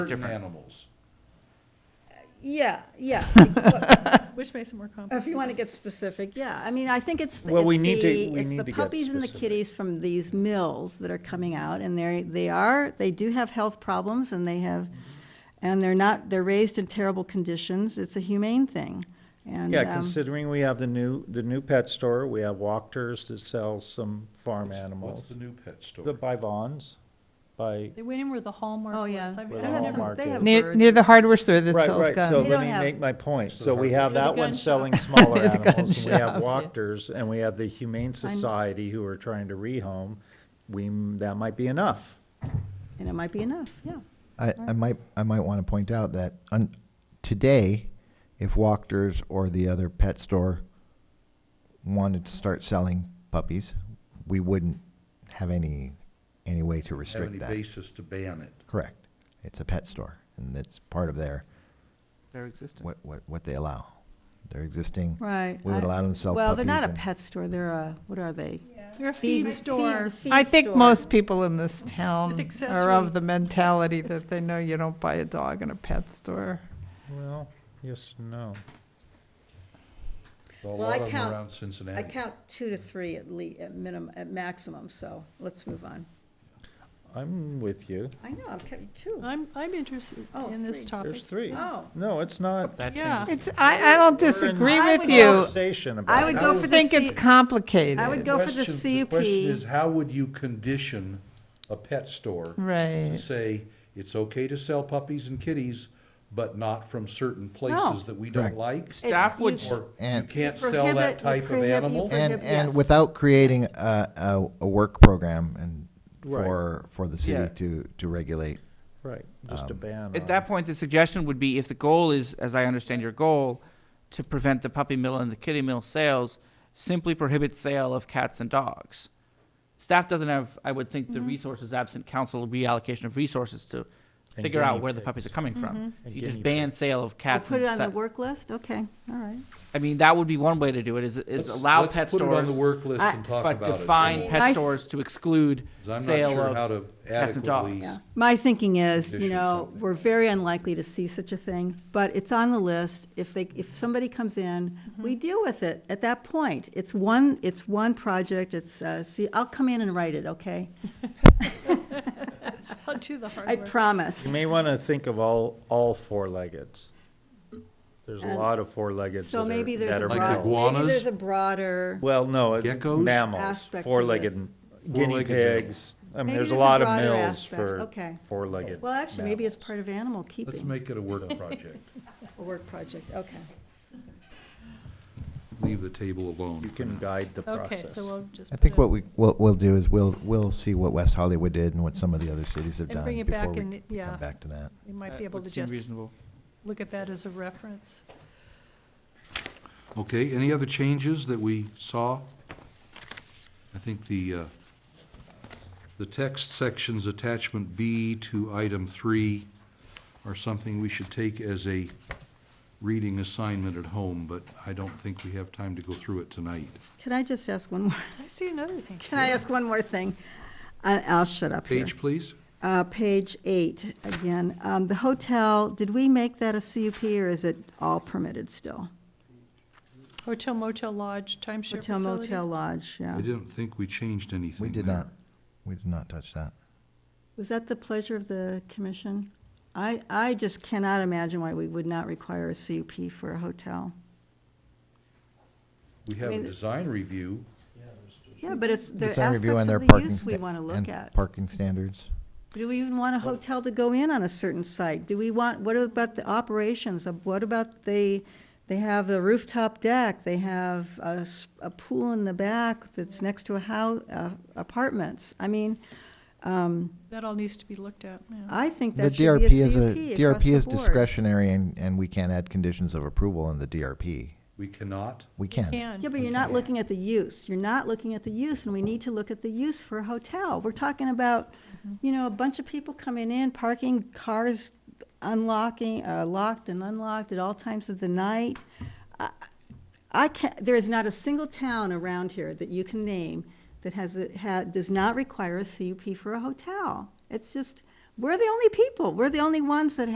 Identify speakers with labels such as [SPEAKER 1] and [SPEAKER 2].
[SPEAKER 1] certain
[SPEAKER 2] Different.
[SPEAKER 1] animals.
[SPEAKER 3] Yeah, yeah. But
[SPEAKER 4] Which makes it more complicated.
[SPEAKER 3] If you want to get specific, yeah. I mean, I think it's,
[SPEAKER 5] Well, we
[SPEAKER 3] it's
[SPEAKER 5] need to-
[SPEAKER 3] the,
[SPEAKER 5] we
[SPEAKER 3] it's
[SPEAKER 5] need
[SPEAKER 3] the
[SPEAKER 5] to get
[SPEAKER 3] puppies and the
[SPEAKER 5] specific.
[SPEAKER 3] kitties from these mills that are coming out, and they're, they are, they do have health problems, and they have, and they're not, they're raised in terrible conditions. It's a humane thing. And,
[SPEAKER 5] Yeah,
[SPEAKER 3] um,
[SPEAKER 5] considering we have the new, the new pet store, we have Walkers that sell some farm
[SPEAKER 1] What's
[SPEAKER 5] animals.
[SPEAKER 1] the new pet
[SPEAKER 5] The
[SPEAKER 1] store?
[SPEAKER 5] by Vons, by,
[SPEAKER 4] They went in where the Hallmark
[SPEAKER 3] Oh,
[SPEAKER 4] was.
[SPEAKER 3] yeah.
[SPEAKER 4] I've-
[SPEAKER 5] Where
[SPEAKER 4] I
[SPEAKER 5] the
[SPEAKER 4] had some-
[SPEAKER 5] Hallmark
[SPEAKER 3] They have
[SPEAKER 5] is.
[SPEAKER 6] Near, near
[SPEAKER 3] birds.
[SPEAKER 6] the hardware store that
[SPEAKER 5] right,
[SPEAKER 6] sells
[SPEAKER 5] right,
[SPEAKER 6] guns.
[SPEAKER 5] so
[SPEAKER 3] They
[SPEAKER 5] let
[SPEAKER 3] don't
[SPEAKER 5] me
[SPEAKER 3] have-
[SPEAKER 5] make my point.
[SPEAKER 1] It's the
[SPEAKER 5] So we
[SPEAKER 1] hardware
[SPEAKER 5] have
[SPEAKER 4] store.
[SPEAKER 5] that
[SPEAKER 4] The
[SPEAKER 5] one
[SPEAKER 4] gun
[SPEAKER 5] selling
[SPEAKER 4] shop.
[SPEAKER 5] smaller
[SPEAKER 6] The gun
[SPEAKER 5] animals, and we have
[SPEAKER 6] shop, yeah.
[SPEAKER 5] Walkers, and we have the Humane Society who are trying to rehome. We, that might be enough.
[SPEAKER 3] And it might be enough, yeah.
[SPEAKER 7] I, I might I might want to point out that on, today, if Walkers or the other pet store wanted to start selling puppies, we wouldn't have any any way to
[SPEAKER 1] Have any
[SPEAKER 7] restrict that.
[SPEAKER 1] basis to ban it?
[SPEAKER 7] Correct. It's a pet store, and that's part of their
[SPEAKER 6] They're existing.
[SPEAKER 7] what what, what they allow. Their existing.
[SPEAKER 3] Right.
[SPEAKER 7] We would
[SPEAKER 3] I-
[SPEAKER 7] allow them to sell
[SPEAKER 3] Well, they're not
[SPEAKER 7] puppies
[SPEAKER 3] a
[SPEAKER 7] and-
[SPEAKER 3] pet store, they're a, what are they?
[SPEAKER 4] They're a feed store.
[SPEAKER 3] the feed
[SPEAKER 6] I think
[SPEAKER 3] store.
[SPEAKER 6] most people in this town
[SPEAKER 4] With
[SPEAKER 6] are of
[SPEAKER 4] accessory-
[SPEAKER 6] the mentality
[SPEAKER 4] It's-
[SPEAKER 6] that they know you don't buy a dog in a pet store.
[SPEAKER 5] Well, yes, and no.
[SPEAKER 1] So A
[SPEAKER 3] Well, I
[SPEAKER 1] lot of them
[SPEAKER 3] count-
[SPEAKER 1] around
[SPEAKER 3] I
[SPEAKER 1] Cincinnati.
[SPEAKER 3] count two to three at le, at minimum, at maximum, so let's move on.
[SPEAKER 5] I'm with you.
[SPEAKER 3] I know, I've kept two.
[SPEAKER 4] I'm, I'm interested
[SPEAKER 3] Oh,
[SPEAKER 4] in this
[SPEAKER 3] three.
[SPEAKER 4] topic.
[SPEAKER 5] There's three.
[SPEAKER 3] Oh.
[SPEAKER 5] No, it's not.
[SPEAKER 2] That
[SPEAKER 4] Yeah.
[SPEAKER 2] changes.
[SPEAKER 6] It's, I, I don't
[SPEAKER 5] We're in
[SPEAKER 6] disagree
[SPEAKER 3] I
[SPEAKER 6] with
[SPEAKER 3] would go
[SPEAKER 6] you.
[SPEAKER 5] Conversation about.
[SPEAKER 3] I would
[SPEAKER 6] I
[SPEAKER 3] go
[SPEAKER 6] don't
[SPEAKER 3] for the
[SPEAKER 6] think it's
[SPEAKER 3] C-
[SPEAKER 6] complicated.
[SPEAKER 3] I would go for the
[SPEAKER 1] Question- question is,
[SPEAKER 3] CUP.
[SPEAKER 1] how would you condition a pet store? To
[SPEAKER 6] Right.
[SPEAKER 1] say, it's okay to sell puppies and kitties, but not from certain places that we don't
[SPEAKER 7] Correct.
[SPEAKER 1] like?
[SPEAKER 2] Staff
[SPEAKER 3] you-
[SPEAKER 2] would,
[SPEAKER 1] Or you
[SPEAKER 7] And-
[SPEAKER 1] can't sell
[SPEAKER 3] Prohibit-
[SPEAKER 1] that type of
[SPEAKER 3] prohibit- you
[SPEAKER 1] animal?
[SPEAKER 3] prohibit-
[SPEAKER 7] And,
[SPEAKER 3] Prohibit- yes.
[SPEAKER 7] and without creating a, a, a work program and
[SPEAKER 5] Right.
[SPEAKER 7] for, for the
[SPEAKER 2] Yeah.
[SPEAKER 7] city to, to regulate.
[SPEAKER 5] Right, just a ban.
[SPEAKER 2] at
[SPEAKER 5] on-
[SPEAKER 2] that point, the suggestion would be if the goal is, as I understand your goal, to prevent the puppy mill and the kitty mill sales, simply prohibit sale of cats and dogs. Staff doesn't have, I would think, the
[SPEAKER 1] Mm-hmm.
[SPEAKER 2] resources absent council reallocation of resources to
[SPEAKER 5] And
[SPEAKER 2] figure out
[SPEAKER 5] guinea
[SPEAKER 2] where the
[SPEAKER 5] pigs.
[SPEAKER 2] puppies are coming
[SPEAKER 1] Mm-hmm.
[SPEAKER 2] from.
[SPEAKER 5] And
[SPEAKER 2] If you just
[SPEAKER 5] guinea
[SPEAKER 2] ban sale of
[SPEAKER 3] We'll
[SPEAKER 2] cats
[SPEAKER 3] Put it on
[SPEAKER 2] and,
[SPEAKER 3] the
[SPEAKER 2] sa-
[SPEAKER 3] work list, okay, all right.
[SPEAKER 2] I mean, that would be one way to do it, is, is
[SPEAKER 1] Let's-
[SPEAKER 2] allow pet
[SPEAKER 1] Let's put it on
[SPEAKER 2] stores,
[SPEAKER 1] the work list and talk about
[SPEAKER 2] but
[SPEAKER 1] it.
[SPEAKER 2] define
[SPEAKER 3] I
[SPEAKER 2] pet
[SPEAKER 3] f-
[SPEAKER 2] stores to exclude
[SPEAKER 1] 'cause I'm not
[SPEAKER 2] sale
[SPEAKER 1] sure how
[SPEAKER 2] of.
[SPEAKER 1] to
[SPEAKER 2] cats and dogs.
[SPEAKER 1] adequately.
[SPEAKER 3] Yeah. My thinking is, you
[SPEAKER 1] Condition
[SPEAKER 3] know,
[SPEAKER 1] something.
[SPEAKER 3] we're very unlikely to see such a thing, but it's on the list. If they, if somebody comes in, we deal with it at that point. It's one, it's one project, it's, uh, see, I'll come in and write it, okay?
[SPEAKER 4] I'll do the hard
[SPEAKER 3] I
[SPEAKER 4] work.
[SPEAKER 3] promise.
[SPEAKER 5] You may want to think of all, all four-leggeds. There's a
[SPEAKER 3] And-
[SPEAKER 5] lot of four-leggeds that
[SPEAKER 3] So
[SPEAKER 5] are,
[SPEAKER 3] maybe there's
[SPEAKER 5] that
[SPEAKER 3] a
[SPEAKER 5] are
[SPEAKER 1] Like
[SPEAKER 3] broad,
[SPEAKER 5] mammals.
[SPEAKER 3] maybe
[SPEAKER 1] iguanas?
[SPEAKER 3] there's a broader,
[SPEAKER 5] Well, no, it-
[SPEAKER 1] Geckos?
[SPEAKER 5] mammals,
[SPEAKER 3] Aspect to
[SPEAKER 5] four-legged
[SPEAKER 3] this.
[SPEAKER 5] guinea
[SPEAKER 1] Four-legged mammals.
[SPEAKER 5] pigs. I mean,
[SPEAKER 3] Maybe
[SPEAKER 5] there's a
[SPEAKER 3] there's a
[SPEAKER 5] lot of
[SPEAKER 3] broader
[SPEAKER 5] mills
[SPEAKER 3] aspect,
[SPEAKER 5] for
[SPEAKER 3] okay.
[SPEAKER 5] four-legged.
[SPEAKER 3] well, actually, maybe it's
[SPEAKER 5] mammals.
[SPEAKER 3] part of animal
[SPEAKER 1] Let's
[SPEAKER 3] keeping,
[SPEAKER 1] make it a work project.
[SPEAKER 3] a work project, okay.
[SPEAKER 1] Leave the table alone.
[SPEAKER 5] You can guide the
[SPEAKER 4] Okay, so
[SPEAKER 5] process.
[SPEAKER 4] we'll just.
[SPEAKER 7] I
[SPEAKER 4] put
[SPEAKER 7] think
[SPEAKER 4] it-
[SPEAKER 7] what we, what we'll do is we'll, we'll see what West Hollywood did and what some of the other cities have
[SPEAKER 4] And
[SPEAKER 7] done
[SPEAKER 4] bring it back
[SPEAKER 7] before we
[SPEAKER 4] and, yeah,
[SPEAKER 7] come back to that.
[SPEAKER 4] we might be
[SPEAKER 1] Uh,
[SPEAKER 2] That
[SPEAKER 4] able
[SPEAKER 2] would
[SPEAKER 4] to
[SPEAKER 2] seem
[SPEAKER 4] just
[SPEAKER 2] reasonable.
[SPEAKER 4] look at that as a reference.
[SPEAKER 1] Okay, any other changes that we saw? I think the, uh, the text sections, attachment B to item three are something we should take as a reading assignment at home, but I don't think we have time to go through it tonight.
[SPEAKER 3] Can I just ask one more?
[SPEAKER 4] I see another thing.
[SPEAKER 3] Can I ask one more thing? I- I'll shut up here.
[SPEAKER 1] Page, please.
[SPEAKER 3] Uh, Page eight, again, Um, the hotel, did we make that a CUP or is it all permitted still?
[SPEAKER 4] Hotel motel lodge timeshare
[SPEAKER 3] Hotel
[SPEAKER 4] facility.
[SPEAKER 3] motel lodge, yeah.
[SPEAKER 1] I didn't think we changed anything
[SPEAKER 7] We did
[SPEAKER 1] there.
[SPEAKER 7] not, we did not touch that.
[SPEAKER 3] Was that the pleasure of the commission? I, I just cannot imagine why we would not require a CUP for a hotel.
[SPEAKER 1] We have
[SPEAKER 3] I
[SPEAKER 1] a
[SPEAKER 3] mean-
[SPEAKER 1] design review.
[SPEAKER 3] Yeah, but it's the
[SPEAKER 7] Design review
[SPEAKER 3] aspects
[SPEAKER 7] and their
[SPEAKER 3] of the
[SPEAKER 7] parking
[SPEAKER 3] use we
[SPEAKER 7] sta-
[SPEAKER 3] want to
[SPEAKER 7] and
[SPEAKER 3] look at.
[SPEAKER 7] Parking standards.
[SPEAKER 3] Do we even want a hotel to go in on a certain site? Do we want, what about the operations? of What about they, they have the rooftop deck, they have a, s- a pool in the back that's next to a house, apartments? I mean,
[SPEAKER 4] That all needs to be looked at, yeah.
[SPEAKER 3] I think
[SPEAKER 7] The
[SPEAKER 3] that should be
[SPEAKER 7] DRP
[SPEAKER 3] a
[SPEAKER 7] is a,
[SPEAKER 3] CUP across
[SPEAKER 7] DRP
[SPEAKER 3] the
[SPEAKER 7] is
[SPEAKER 3] board.
[SPEAKER 7] discretionary and, and we can't add conditions of approval in the DRP.
[SPEAKER 1] We cannot.
[SPEAKER 7] We can.
[SPEAKER 4] Can,
[SPEAKER 3] Yeah, but you're not looking at the use. You're not looking at the use, and we need to look at the use for a hotel. We're talking about, you know, a bunch of people coming in, parking cars, unlocking, uh, locked and unlocked at all times of the night. I- I can't, there is not a single town around here that you can name that has, a- ha, does not require a CUP for a hotel. It's just, We're the only people, we're the only ones that